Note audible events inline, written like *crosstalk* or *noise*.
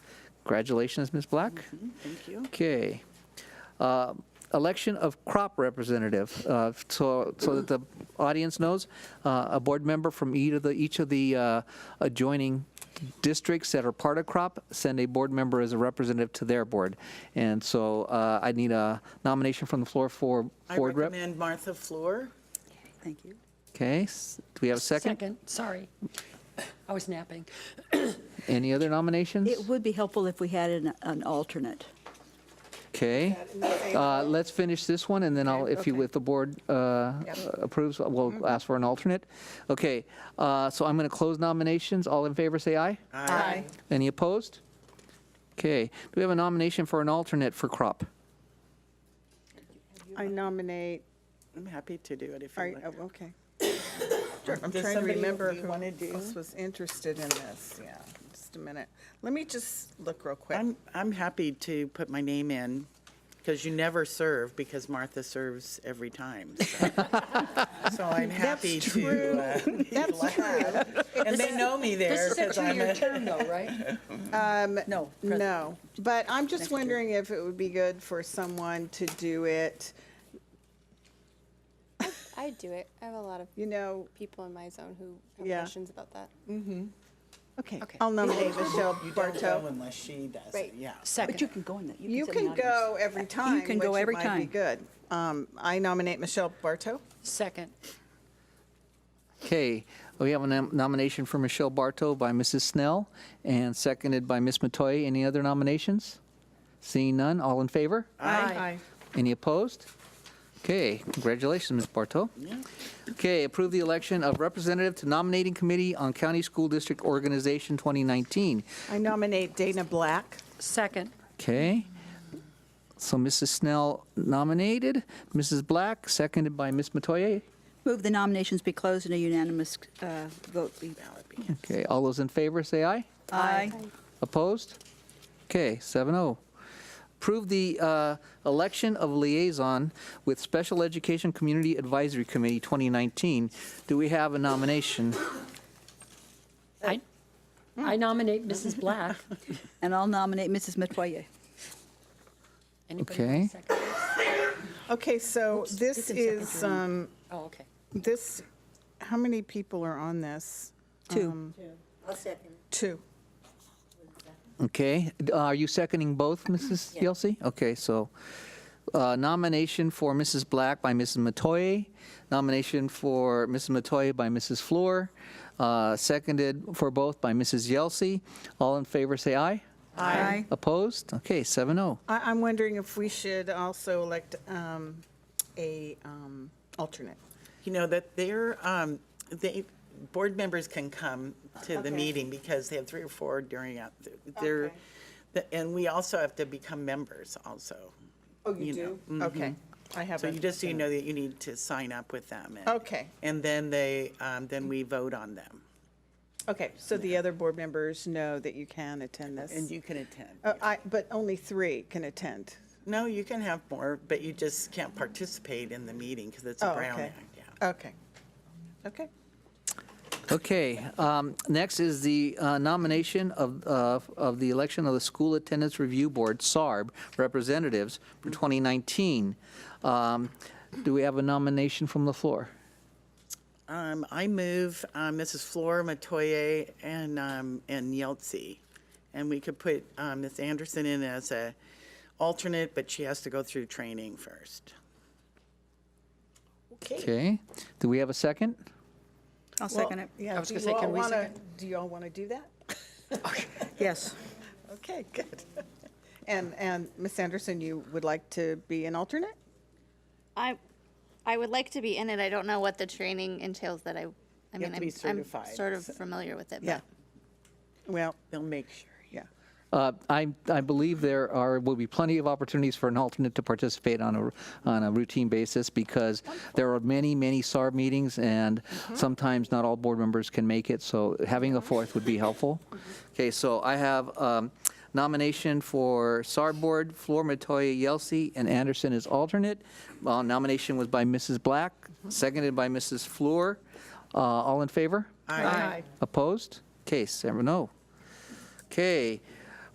Congratulations, Ms. Black. Thank you. Okay. Uh, Election of crop representative. Uh, So so that the audience knows, uh, a board member from each of the, each of the uh, adjoining districts that are part of crop send a board member as a representative to their board. And so uh, I need a nomination from the floor for I board rep. recommend Martha Fleur. Thank you. Okay, s- do we have a second? Second, sorry. I was napping. Any other nominations? It would be helpful if we had an, an alternate. Okay. Uh, Let's finish this one, and then I'll, if you, if the board uh, approves, we'll ask for an alternate. Okay, uh, so I'm going to close nominations. All in favor, say aye. Aye. Any opposed? Okay, do we have a nomination for an alternate for crop? I nominate, I'm happy to do it if are you you- like. *coughs* oh, okay. I'm Does trying to somebody remember you who wanna do? else was interested in this, yeah, just a minute. Let me just look real quick. I'm, I'm happy to put my name in, because you never serve, because Martha serves every time. So So I'm happy to. uh, *laughs* That's true. And they know me there, This is a because I'm two-year a, term though, right? No. Um, No, but I'm just wondering if it would be good for someone to do it, I do it. I have a lot of you know, people in my zone who have Yeah. questions about that. okay, I'll nominate Michelle you don't go Barto. unless she does it, Right. yeah. Second. But you can go in that. You sit can in the audience. go every time, can go which every might be time. good. Um, I nominate Michelle Barto. Second, Okay, we have a nom- nomination for Michelle Bartow by Mrs. Snell, and seconded by Ms. Matoye. Any other nominations? Seeing none, all in favor? Aye. Any opposed? Okay, congratulations, Ms. Bartow. Okay, approve the election of representative to nominating committee on County School District Organization 2019. I nominate Dana Black. second, Okay, so Mrs. Snell nominated, Mrs. Black, seconded by Ms. Metoyer. Move the nominations be closed and a unanimous uh, vote be. Okay, all those in favor, say aye. Aye. Opposed? Okay, 7-0. Approve the uh, election of liaison with Special Education Community Advisory Committee 2019. Do we have a nomination? I, I nominate Mrs. Black. And I'll nominate Mrs. Metoyer. Anybody Okay. want a second? Okay, so Oops, this it's in is, second um, Oh, okay. this, how many people are on this? Two. Two. Okay, d- uh, are you seconding both, Mrs. Yelsey? Okay, so uh, nomination for Mrs. Black by Mrs. Matoye, nomination for Mrs. Matoye by Mrs. Fleur, uh, seconded for both by Mrs. Yelsey. All in favor, say aye. Aye. Opposed? Okay, oh. 7-0. I, I'm wondering if we should also elect um, a um, alternate. You know, that they're, um, they, board members can come to the meeting because they have three or four during, out- they're, the- and we also have to become members also. Oh, you do? Okay, I So you haven't. just, so you know that you need to sign up with them. and- Okay. And then they, um, then we vote on them. Okay, so the other board members know that you can attend And this. you can attend. Oh, I, but only three can attend. No, you can have more, but you just can't participate in the meeting because it's Oh, a Brown okay. Act, yeah. Okay. Okay. Okay, um, next is the uh, nomination of, of of the election of the School Attendance Review Board, SARB, representatives for 2019. Um, Do we have a nomination from the floor? Um, I move uh, Mrs. Flora Matoye and, um, and Yelsey. And we could put um, Ms. Anderson in as a alternate, but she has to go through training first. Okay, do we have a second? I'll second it. Yeah. I was do gonna say, you all can we wanna- Do you all want to do that? Yes. Okay, good. And, and Ms. Anderson, you would like to be an alternate? I, I would like to be in it. I don't know what the training entails that I, I mean, to I'm, be I'm certified, sort of familiar with it, Yeah. but Well, They'll make sure. yeah. Uh, I, I believe there are, will be plenty of opportunities for an alternate to participate on a, on a routine basis because there are many, many SARB meetings and Mm-hmm. sometimes not all board members can make it, so having a fourth would be helpful. *laughs* Mm-hmm. Okay, so I have um, nomination for SARB Board, Flor Matoye Yelsey, and Anderson as alternate. Uh, Nomination was by Mrs. Black, Mm-hmm. seconded by Mrs. Fleur. Uh, All in favor? Aye. Opposed? Case, seven oh. Okay,